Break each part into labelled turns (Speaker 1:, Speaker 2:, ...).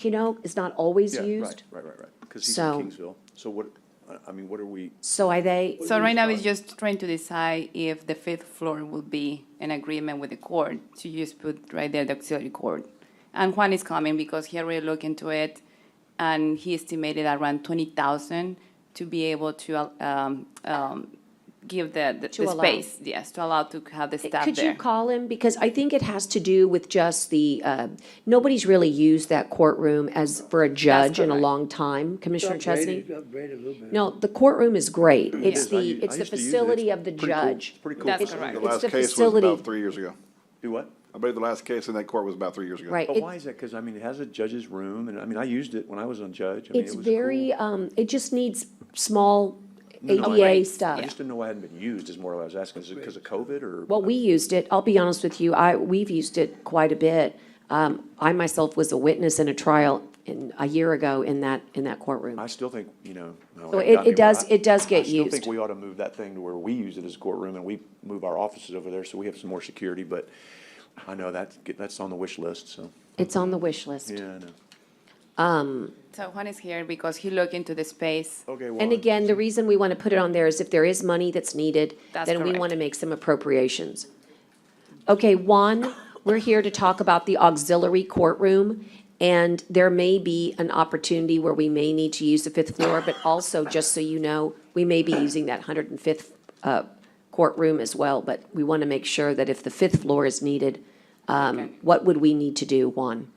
Speaker 1: you know, is not always
Speaker 2: Yeah,
Speaker 1: used.
Speaker 2: Right, right, right, right, because he's in
Speaker 1: So-
Speaker 2: Kingsville. So what, I- I mean, what are we,
Speaker 1: So are they,
Speaker 3: So right now, it's just trying to decide if the fifth floor will be an agreement with the court to just put right there the auxiliary court. And Juan is coming because he already looked into it, and he estimated around twenty thousand to be able to, um, um, give the, the-
Speaker 1: To
Speaker 3: the
Speaker 1: allow.
Speaker 3: space, yes, to allow to have the staff
Speaker 1: could you
Speaker 3: there.
Speaker 1: call him? Because I think it has to do with just the, uh, nobody's really used that courtroom as, for a judge in a
Speaker 3: correct.
Speaker 1: long time, Commissioner Chesney.
Speaker 4: Upgrade it, upgrade it a little bit.
Speaker 1: No, the courtroom is great. It's
Speaker 2: is. I
Speaker 1: the,
Speaker 2: u-
Speaker 1: it's
Speaker 2: I
Speaker 1: the
Speaker 2: used to use it.
Speaker 1: facility
Speaker 2: It's
Speaker 1: of the
Speaker 2: pretty cool.
Speaker 1: judge.
Speaker 2: It's pretty cool.
Speaker 3: That's
Speaker 2: It's-
Speaker 3: correct.
Speaker 5: The
Speaker 1: It's
Speaker 5: last
Speaker 1: the
Speaker 5: case was
Speaker 1: facility.
Speaker 5: about three years ago.
Speaker 2: do what?
Speaker 5: I believe the last case in that court was about three years ago.
Speaker 1: Right.
Speaker 2: But
Speaker 1: It-
Speaker 2: why is that? Because I mean, it has a judge's room, and I mean, I used it when I was on judge. I mean,
Speaker 1: It's
Speaker 2: it was
Speaker 1: very,
Speaker 2: cool.
Speaker 1: um, it just needs small
Speaker 2: no,
Speaker 1: ADA
Speaker 3: Right.
Speaker 2: I
Speaker 1: stuff.
Speaker 2: just didn't know why it hadn't been used, is more what I was asking. Is it because of COVID or?
Speaker 1: Well, we used it, I'll be honest with you, I, we've used it quite a bit. Um, I myself was a witness in a trial in, a year ago in that, in that courtroom.
Speaker 2: I still think, you know. no,
Speaker 1: So
Speaker 2: that
Speaker 1: it-
Speaker 2: got
Speaker 1: it
Speaker 2: me, but
Speaker 1: does-
Speaker 2: I-
Speaker 1: it does get
Speaker 2: I still
Speaker 1: used.
Speaker 2: think we ought to move that thing to where we use it as a courtroom and we move our offices over there so we have some more security, but I know that's, that's on the wish list, so,
Speaker 1: It's on the wish list.
Speaker 2: yeah, I know.
Speaker 3: So Juan is here because he looked into the space.
Speaker 2: Okay, well.
Speaker 1: And again, the reason we want to put it on there is if there is money that's needed,
Speaker 3: That's
Speaker 1: then we
Speaker 3: correct.
Speaker 1: want to make some appropriations. Okay, one, we're here to talk about the auxiliary courtroom, and there may be an opportunity where we may need to use the fifth floor, but also, just so you know, we may be using that hundred and fifth uh, courtroom as well, but we want to make sure that if the fifth floor is needed, um, what would we need to do, Juan?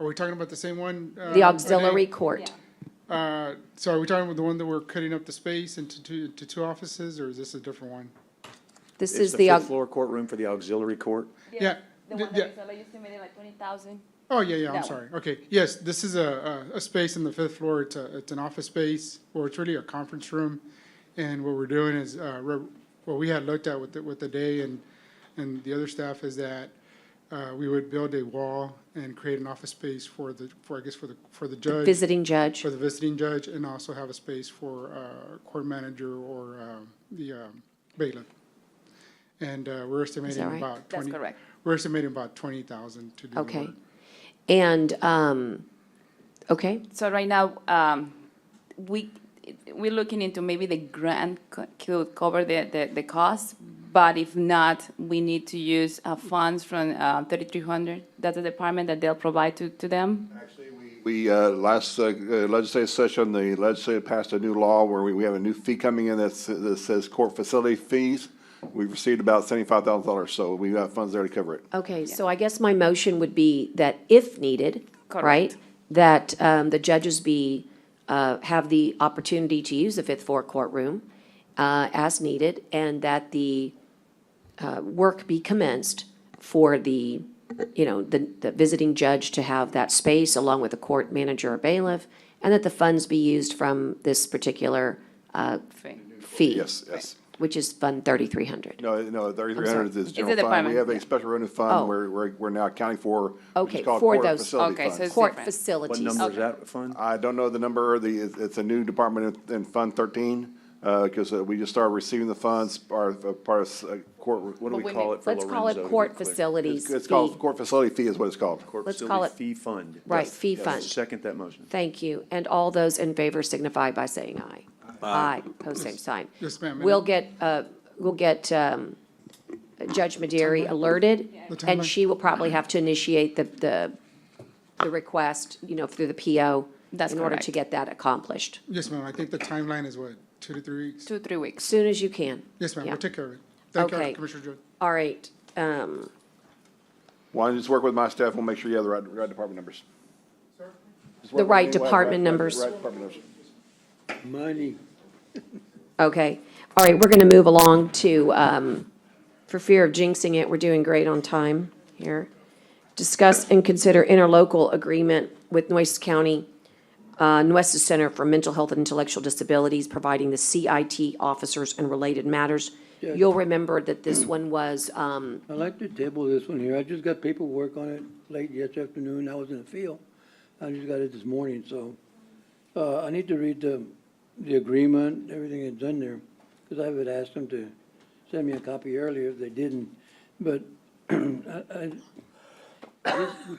Speaker 6: Are we talking about the same one? uh,
Speaker 1: The auxiliary
Speaker 6: Renee?
Speaker 1: court.
Speaker 6: Uh, So are we talking about the one that we're cutting up the space into two, to two offices, or is this a different one?
Speaker 1: This
Speaker 2: It's
Speaker 1: is
Speaker 2: the
Speaker 1: the,
Speaker 2: fifth
Speaker 1: au-
Speaker 2: floor courtroom for the auxiliary court.
Speaker 6: Yeah.
Speaker 3: The
Speaker 6: th-
Speaker 3: one
Speaker 6: yeah.
Speaker 3: that is already estimated like twenty thousand.
Speaker 6: Oh, yeah, yeah, I'm
Speaker 3: That
Speaker 6: sorry. Okay, yes, this is a, a, a space in the fifth floor. It's a, it's an office space, or it's really a conference room. And what we're doing is, uh, re- what we had looked at with, the- with the day and, and the other staff is that, uh, we would build a wall and create an office space for the, for, I guess, for the, for the judge.
Speaker 1: visiting judge.
Speaker 6: for the visiting judge and also have a space for uh, court manager or um, the um, bailiff. And uh, we're estimating
Speaker 1: right?
Speaker 6: about
Speaker 3: That's
Speaker 6: twenty.
Speaker 3: correct.
Speaker 6: We're estimating about twenty thousand to do the
Speaker 1: Okay.
Speaker 6: work.
Speaker 1: And, um, okay,
Speaker 3: So right now, um, we, we're looking into maybe the grant co- could cover the, the, the cost, but if not, we need to use uh, funds from uh, 3,300, that's the department that they'll provide to, to them.
Speaker 5: We, uh, last uh, uh, legislative session, the legislature passed a new law where we, we have a new fee coming in that's, that says court facility fees. We've received about seventy-five thousand dollars, so we have funds there to cover it.
Speaker 1: okay, so I guess my motion would be that if needed, right?
Speaker 3: Correct.
Speaker 1: That, um, the judges be, uh, have the opportunity to use the fifth floor courtroom, uh, as needed, and that the, uh, work be commenced for the, you know, the, the visiting judge to have that space along with the court manager or bailiff, and that the funds be used from this particular, uh, fee.
Speaker 5: Yes, yes.
Speaker 1: Which is Fund 3,300.
Speaker 5: No, no, thirty-three hundred is
Speaker 3: a
Speaker 5: general fund. We
Speaker 3: department,
Speaker 5: have
Speaker 3: yeah.
Speaker 5: a special revenue
Speaker 1: Oh.
Speaker 5: fund where, where we're now accounting for, which
Speaker 1: Okay,
Speaker 5: is called
Speaker 1: for
Speaker 5: court
Speaker 1: those.
Speaker 5: facility
Speaker 3: Okay, so
Speaker 5: funds.
Speaker 3: it's-
Speaker 1: Court
Speaker 3: different.
Speaker 2: What
Speaker 1: facilities. Uh,
Speaker 2: number is that fund?
Speaker 5: I don't know the number, the, it's, it's a new department in, in Fund thirteen, uh, cause uh, we just started receiving the funds, or, part of uh, court,
Speaker 2: What do we
Speaker 3: Wait a
Speaker 2: call
Speaker 3: minute.
Speaker 2: it for
Speaker 1: Let's
Speaker 2: Lorenzo?
Speaker 1: call it
Speaker 2: to
Speaker 1: court
Speaker 2: get clear?
Speaker 1: facilities
Speaker 5: it's, it's
Speaker 1: fee.
Speaker 5: called, court facility fee is what it's called.
Speaker 2: Court
Speaker 1: let's
Speaker 2: facility
Speaker 1: call
Speaker 2: Fee fund.
Speaker 1: Right,
Speaker 2: Yes,
Speaker 1: fee
Speaker 2: yes.
Speaker 1: fund.
Speaker 2: Second that motion.
Speaker 1: Thank you. And all those in favor signify by saying aye. Aye, pose same sign.
Speaker 6: Yes, ma'am.
Speaker 1: We'll get, uh, we'll get um, Judge Maderi alerted,
Speaker 6: The
Speaker 1: and
Speaker 6: timeline.
Speaker 1: she will probably have to initiate the, the, the request, you know, through the PO.
Speaker 3: That's
Speaker 1: In order to get
Speaker 3: correct.
Speaker 1: that accomplished,
Speaker 6: Yes, ma'am, I think the timeline is what, two to three weeks?
Speaker 3: Two, three weeks.
Speaker 1: soon as you can.
Speaker 6: Yes, ma'am,
Speaker 1: Yeah.
Speaker 6: we'll take care of it. Thank
Speaker 1: Okay.
Speaker 6: you, Commissioner Jordan.
Speaker 1: All right, um,
Speaker 5: Why don't you just work with my staff, we'll make sure you have the right, right department numbers. Just
Speaker 1: The
Speaker 5: work with
Speaker 1: right
Speaker 5: me,
Speaker 1: department numbers.
Speaker 5: Right department numbers.
Speaker 4: Money.
Speaker 1: okay. All right, we're going to move along to, um, for fear of jinxing it, we're doing great on time here. Discuss and consider interlocal agreement with Nueces County, uh, Nueces Center for Mental Health and Intellectual Disabilities, providing the CIT officers and related matters.
Speaker 4: Yeah.
Speaker 1: You'll remember that this one was, um,
Speaker 4: I'd like to table this one here. I just got paperwork on it late yesterday afternoon. I was in the field. I just got it this morning, so, uh, I need to read the, the agreement, everything that's in there, because I would ask them to send me a copy earlier if they didn't, but I, I, this-